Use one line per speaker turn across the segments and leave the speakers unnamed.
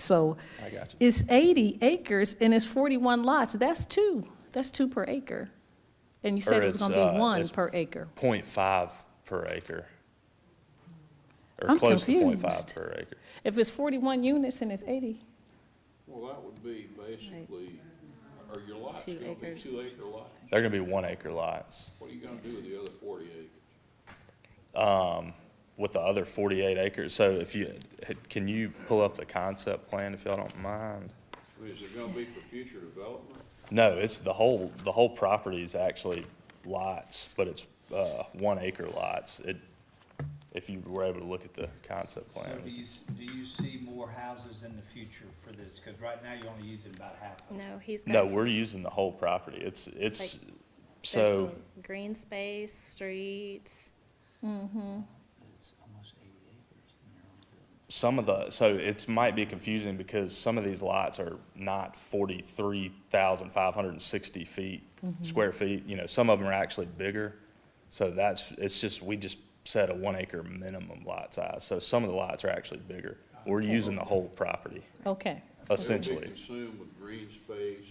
So
I got you.
it's 80 acres and it's 41 lots. That's two. That's two per acre. And you said
Or
it was
it's,
going to
uh,
be one
it's-
per acre.
Point five per acre. Or
I'm
close to point five
confused.
per acre.
If it's 41 units and it's 80,
Well, that would be basically, are your lots
Two
gonna be
acres.
two acre lots?
They're gonna be one acre lots.
What are you gonna do with the other forty acres?
With the other forty-eight acres, so if you, can you pull up the concept plan if y'all don't mind?
I mean, Is it gonna be for future development?
No, it's the whole, the whole property is actually lots, but it's, uh, one acre lots. It, if you were able to look at the concept
So
plan.
do you, s- do you see more houses in the future for this? Because right now, you're only using about half of it.
No, he's got.
No,
s-
we're using the whole property. It's, it's,
Like, there's
so,
some Green space, streets,
It's almost eighty acres in there.
some of the, so it's, might be confusing because some of these lots are not forty-three thousand five hundred and sixty feet, square feet. You know, some of them are actually bigger. So that's, it's just, we just set a one acre minimum lot size. So some of the lots are actually bigger. We're using the whole property.
okay.
It'll be
Essentially,
consumed with green space.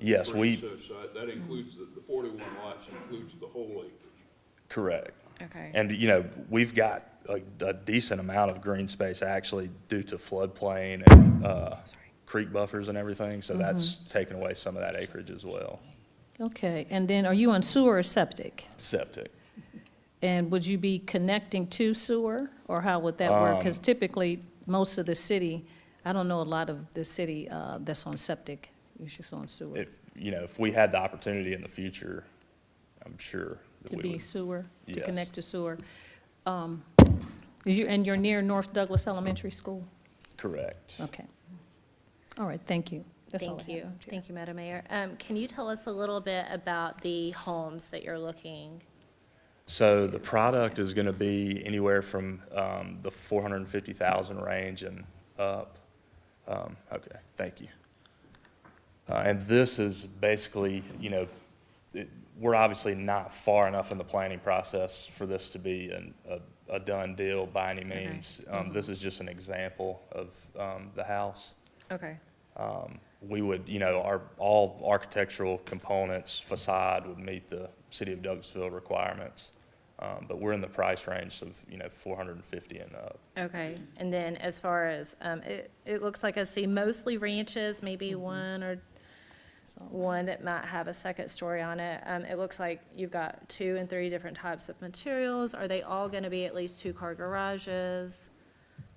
Yes, we-
Princess side. That includes, the, the forty-one lots includes the whole acres.
correct.
okay.
And, you know, we've got a, a decent amount of green space actually due to floodplain and, uh, creek buffers and everything, so that's taken away some of that acreage as well.
Okay. And then are you on sewer or septic?
Septic.
And would you be connecting to sewer, or how would that
Um,
work? Because typically, most of the city, I don't know a lot of the city uh, that's on septic, it's just on sewer.
If, you know, if we had the opportunity in the future, I'm sure that
To
we
be
would.
sewer, to
Yes.
connect to sewer. Um, is you- And you're near North Douglas Elementary School?
Correct.
Okay. All right, thank you. That's all I
Thank
have,
you.
Madam Chair.
Thank you, Madam Mayor. Um, can you tell us a little bit about the homes that you're looking?
So the product is gonna be anywhere from, um, the four hundred and fifty thousand range and up. Um, okay, thank you. Uh, and this is basically, you know, it, we're obviously not far enough in the planning process for this to be an, a, a done deal by any means. Um, this is just an example of, um, the house
Okay.
we would, you know, our, all architectural components, facade would meet the city of Douglasville requirements. Um, but we're in the price range of, you know, four hundred and fifty and up.
Okay. And then as far as, um, it, it looks like I see mostly ranches, maybe one or
So,
one that might have a second story on it. Um, it looks like you've got two and three different types of materials. Are they all gonna be at least two-car garages?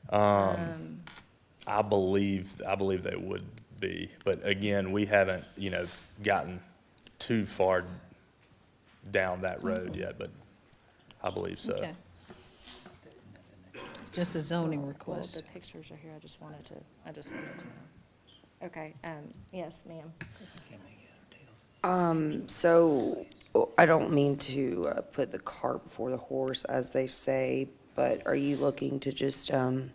Um,
I believe, I believe they would be, but again, we haven't, you know, gotten too far down that road yet, but I believe so.
okay. It's just a zoning
Well,
request.
Well, the pictures are here, I just wanted to, I just wanted to know. Okay, um, yes, ma'am.
So, I don't mean to uh, put the cart before the horse, as they say, but are you looking to just um,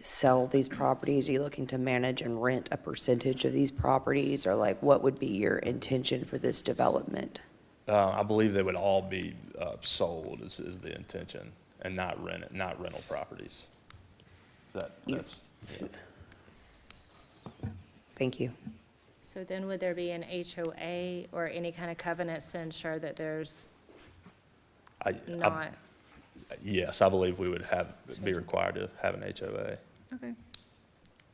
sell these properties? Are you looking to manage and rent a percentage of these properties? Or like, what would be your intention for this development?
Uh, I believe they would all be, uh, sold is, is the intention and not rent, not rental properties. Is that, that's, yeah.
Thank you.
So then would there be an HOA or any kind of covenants to ensure that there's
I, I,
not?
yes, I believe we would have, be required to have an HOA.
Okay.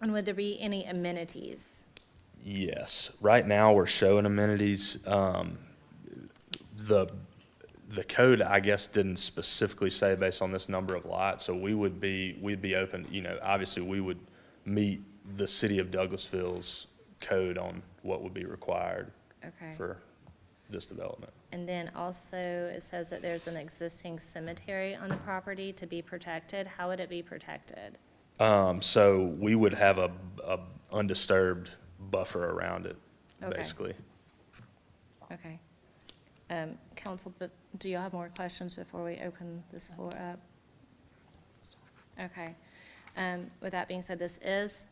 And would there be any amenities?
Yes, right now we're showing amenities. Um, the, the code, I guess, didn't specifically say based on this number of lots, so we would be, we'd be open, you know, obviously we would meet the city of Douglasville's code on what would be required
Okay.
for this development.
And then also, it says that there's an existing cemetery on the property to be protected. How would it be protected?
Um, so we would have a, a undisturbed buffer around it,
Okay.
basically.
Okay. Um, council, but do y'all have more questions before we open this floor up? Okay. Um, with that being said, this is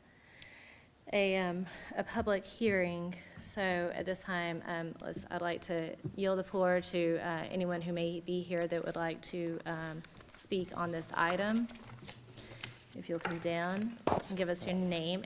a, um, a public hearing. So at this time, um, let's, I'd like to yield the floor to, uh, anyone who may be here that would like to, um, speak on this item. If you'll come down and give us your name